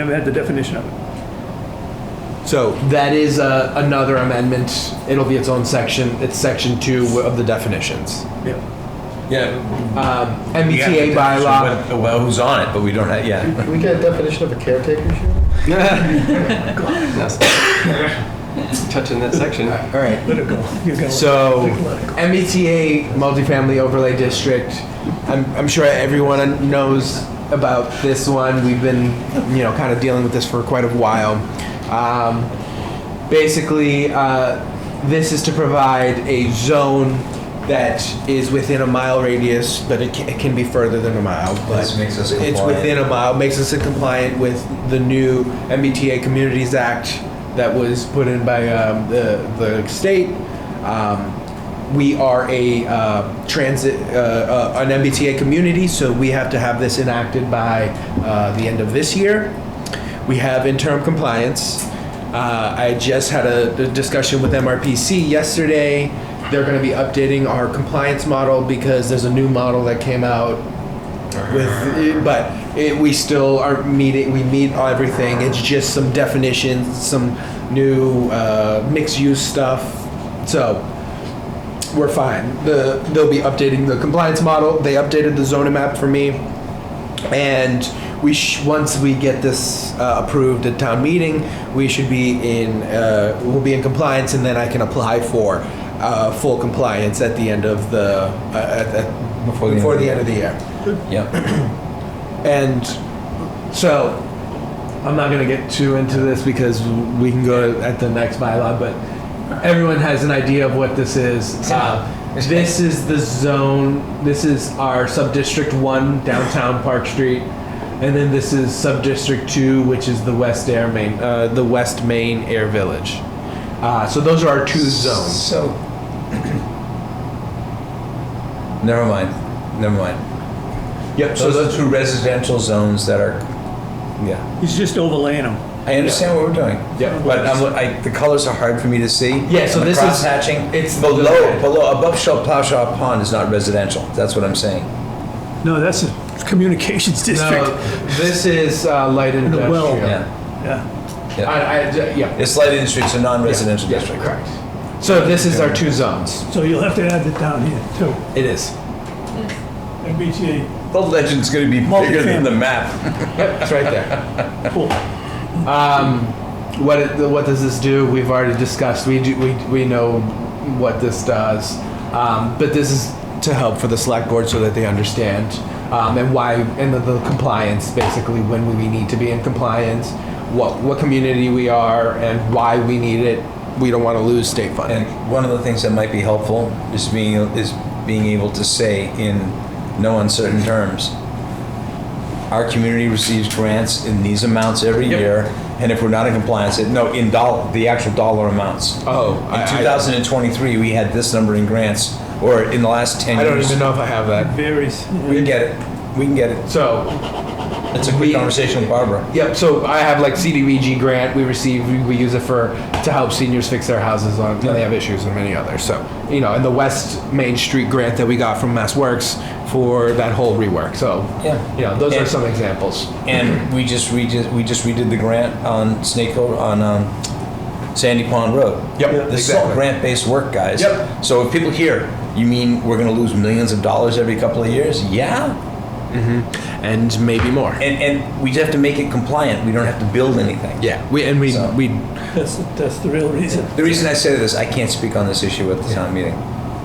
haven't had the definition of it. So that is uh, another amendment. It'll be its own section. It's section two of the definitions. Yeah. Yeah. Um, we have the MBTA definition, bylaw. but- Well, who's on it, but we don't have, yeah. Can we get a definition of a caretaker shoe? touching that section. All right. Let it go. You're gonna- So Let it go. MBTA multifamily overlay district. I'm, I'm sure everyone knows about this one. We've been, you know, kind of dealing with this for quite a while. Um, basically, uh, this is to provide a zone that is within a mile radius, but it can, it can be further than a mile. But This makes us it's compliant. within a mile, makes us compliant with the new MBTA Communities Act that was put in by um, the, the state. Um, we are a uh, transit, uh, uh, an MBTA community, so we have to have this enacted by uh, the end of this year. We have interim compliance. Uh, I just had a, a discussion with MRPC yesterday. They're going to be updating our compliance model because there's a new model that came out with, but it, we still are meeting, we meet everything. It's just some definitions, some new uh, mixed use stuff. So we're fine. The, they'll be updating the compliance model. They updated the zoning map for me. And we sh- once we get this uh, approved at town meeting, we should be in uh, we'll be in compliance, and then I can apply for uh, full compliance at the end of the uh, at, at, Before before the the, end of the end of the year. Yep. And so I'm not gonna get too into this because we can go at the next bylaw, but everyone has an idea of what this is. Uh, this is the zone. This is our sub district one downtown Park Street, and then this is sub district two, which is the West Air Main, uh, the West Main Air Village. Uh, so those are our two zones. So. Never mind, never mind. Yep. So those are two residential zones that are, yeah. He's just overlaying them. I understand what we're doing. Yeah. But I'm, I, the colors are hard for me to see. Yeah, so And the this is- crosshatching, it's the- Below, below, above Shell Plowshaw Pond is not residential, that's what I'm saying. No, that's a communications district. no, this is uh, light the industrial. well. Yeah. Yeah. I, I, yeah. It's light industry, it's a non-residential Yeah, district. Correct. So this is our two zones. So you'll have to add that down here too. It is. MBTA, The legend's gonna be bigger than the map. Yep, it's right there. cool. Um, what it, what does this do? We've already discussed. We do we, we know what this does, um, but this is to help for the select board so that they understand um, and why and the, the compliance basically when we need to be in compliance, what what community we are and why we need it. We don't want to lose state funding. And one of the things that might be helpful is being, is being able to say in no uncertain terms, our community receives grants in these amounts every Yep. year, and if we're not in compliance, it- no, in dollar, the actual dollar amounts. oh, I, In I- 2023, we had this number in grants, or in the last 10 I don't years. even know if I have that. Varies. We can get it. We can get it. So It's a quick We- conversation with Barbara. Yep. So I have like CDBG grant we receive. We, we use it for to help seniors fix their houses on when they have issues and many others. So you know, and the West Main Street grant that we got from Mass Works for that whole rework. So Yeah. you know, those Yeah. are some examples. And we just we just we just redid the grant on Snake Hill on um, Sandy Pond Road. Yep, This is all exactly. grant-based work, guys. Yep. So if people hear, you mean we're going to lose millions of dollars every couple of years? Yeah. And maybe more. And and we just have to make it compliant. We don't have to build anything. yeah. We and we So- we That's, that's the real reason. The reason I say this, I can't speak on this issue at the town meeting.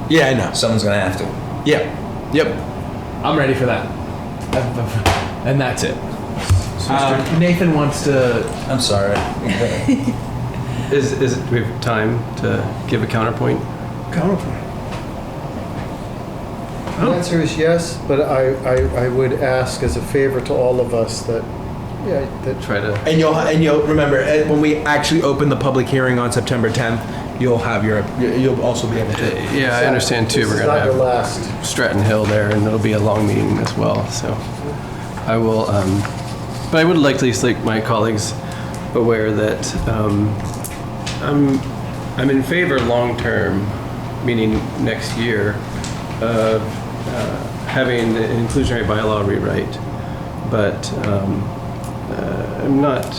yeah I know. Someone's going to have to. Yep. Yep. I'm ready for that. And that's it. Um, Nathan wants to. I'm sorry. Is, is, do we have time to give a counterpoint? Counterpoint. Oh. The answer is yes, but I, I, I would ask as a favor to all of us that, yeah, that, Try to, And you'll and you'll remember eh, when we actually open the public hearing on September 10th, you'll have your you'll also be able to. yeah, I understand too, This we're is gonna not your have last. Stratton Hill there, and it'll be a long meeting as well, so. I will, um, but I would like to at least make my colleagues aware that, um, I'm, I'm in favor long-term, meaning next year, of, uh, having an inclusionary bylaw rewrite. But, um, uh, I'm not